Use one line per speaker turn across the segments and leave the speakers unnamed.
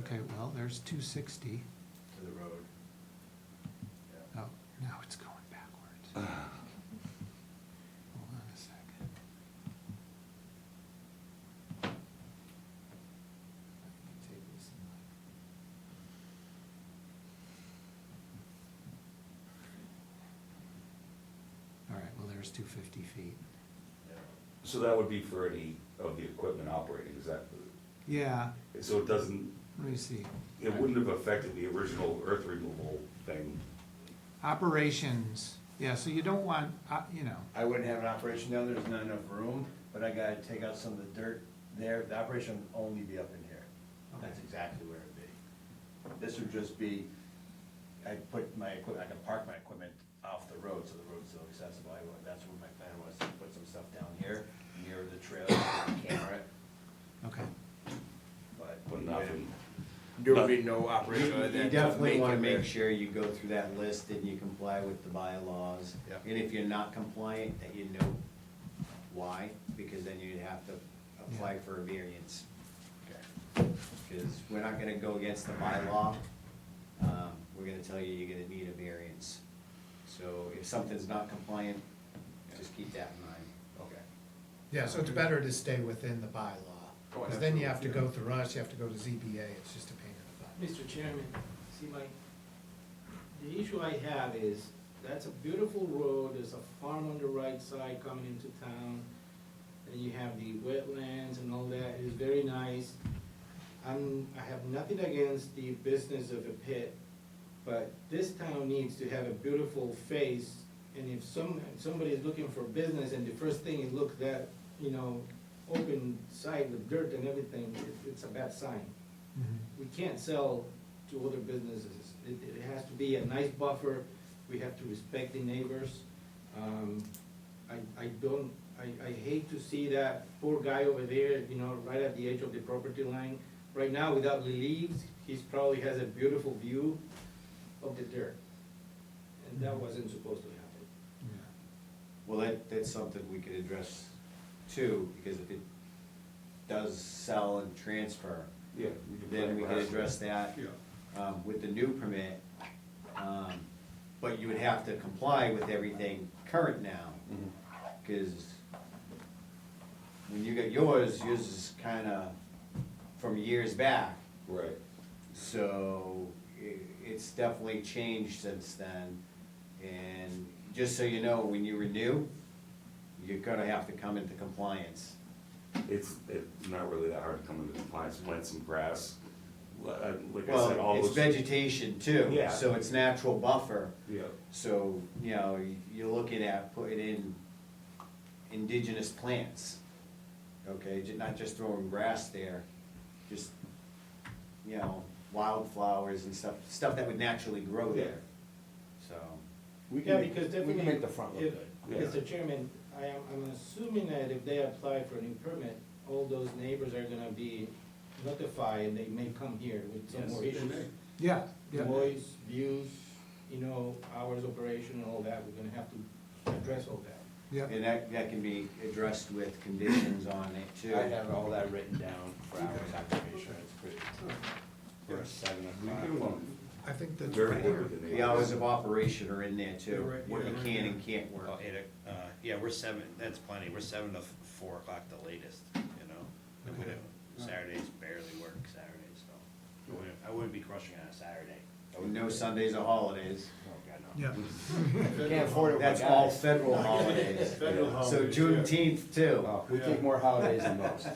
Okay, well, there's two sixty.
to the road.
Oh,
Yeah.
now it's going backwards. Hold on a second. I can take this and like- All right, well, there's two fifty feet.
Yeah.
So that would be for any of the equipment operating, is that,
Yeah,
so it doesn't,
let me see.
it wouldn't have affected the original earth removal thing?
Operations, yeah, so you don't want, uh, you know,
I wouldn't have an operation down there, there's not enough room, but I gotta take out some of the dirt there, the operation would only be up in here. That's
Okay.
exactly where it'd be. This would just be, I put my equipment, I can park my equipment off the road, so the road's still accessible, I, would- that's where my plan was, to put some stuff down here, near the trailer, camera it,
okay.
but.
But nothing,
There would be no operation
You
other
you
than to
definitely
make
wanna
it
make
there.
sure you go through that list and you comply with the bylaws.
Yep.
And if you're not compliant, that you know why, because then you'd have to apply for a variance. Because we're not gonna go against the bylaw, um, we're gonna tell you you're gonna need a variance. So if something's not compliant, just keep that in mind.
Okay.
Yeah, so it's better to stay within the bylaw,
Oh,
because then you have to go
absolutely.
through us, you have to go to ZBA, it's just a pain in the butt.
Mr. Chairman, see my, the issue I have is, that's a beautiful road, there's a farm on the right side coming into town, and you have the wetlands and all that, it's very nice. I'm, I have nothing against the business of a pit, but this town needs to have a beautiful face, and if some, somebody is looking for business, and the first thing is look that, you know, open side with dirt and everything, it- it's a bad sign we can't sell to other businesses. It, it has to be a nice buffer, we have to respect the neighbors. Um, I, I don't, I, I hate to see that poor guy over there, you know, right at the edge of the property line. Right now, without leaves, he's probably has a beautiful view of the dirt. And that wasn't supposed to happen.
Yeah.
Well, that, that's something we could address too, because if it does sell and transfer,
yeah.
then we could address that
Yeah.
um, with the new permit. um, But you would have to comply with everything current now,
Mhm.
because when you got yours, yours is kinda from years back.
Right,
So i- it's definitely changed since then. And just so you know, when you renew, you're gonna have to come into compliance.
it's, it's not really that hard to come into compliance, plant some grass, li- uh, like I said, all
Well,
those.
it's vegetation too,
Yeah.
so it's natural buffer.
Yeah,
So, you know, you're looking at putting in indigenous plants, okay, ju- not just throwing grass there, just, you know, wildflowers and stuff, stuff that would naturally grow there, so.
We
Yeah,
can make,
because definitely.
we can make the front look
if-
good.
Yeah.
Mr. Chairman, I am, I'm assuming that if they apply for a new permit, all those neighbors are gonna be notified, and they may come here with some
Yes,
more
they
issues.
Yeah, yeah,
Noise, views, you know, hours of operation and all that, we're gonna have to address all that.
yeah.
And that, that can be addressed with conditions on it too.
I have all that written down for hours operation, it's pretty, for seven
we
o'clock.
can, um,
I think that's
very good
fair.
with the
The hours
neighbors.
of operation are in there
You're
too,
right,
what
yeah,
you
right
can
there.
and can't work.
Well, eight o- uh, yeah, we're seven, that's plenty, we're seven to f- four o'clock the latest, you know? And we
Okay.
don't- Saturdays barely work, Saturdays, so, I wouldn't, I wouldn't be crushing on a Saturday. I wouldn't-
No Sundays or holidays,
Oh, God, no.
Yeah.
Can't afford it,
that's all federal holidays,
Federal Oh.
so Juneteenth too.
Well, we take more holidays than most.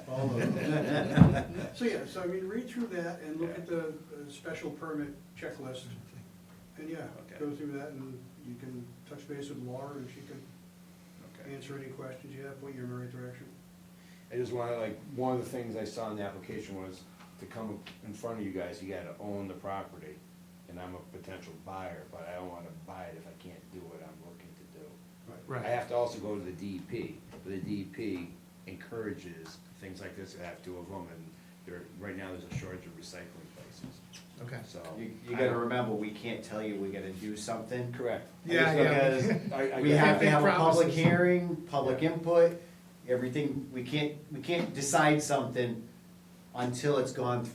So, yeah, so I mean, read through that and look at the uh, special permit checklist, and yeah,
Okay.
go through that, and you can touch base with Laura, and she can
Okay.
answer any questions you have, point you in the right direction.
I just wanna like, one of the things I saw in the application was to come in front of you guys, you gotta own the property. And I'm a potential buyer, but I don't wanna buy it if I can't do what I'm looking to do.
Right.
I have to also go to the
E
DEP, but the DEP encourages things like this, I have two of them, and there, right now, there's a shortage of recycling places,
Okay.
so.
You, you gotta remember, we can't tell you we gotta do something.
Correct. I
Yeah,
just don't-
yeah.
because I- I
We
guess-
have to
Big
have a public
promises.
hearing, public input, everything, we can't, we can't decide something until it's gone through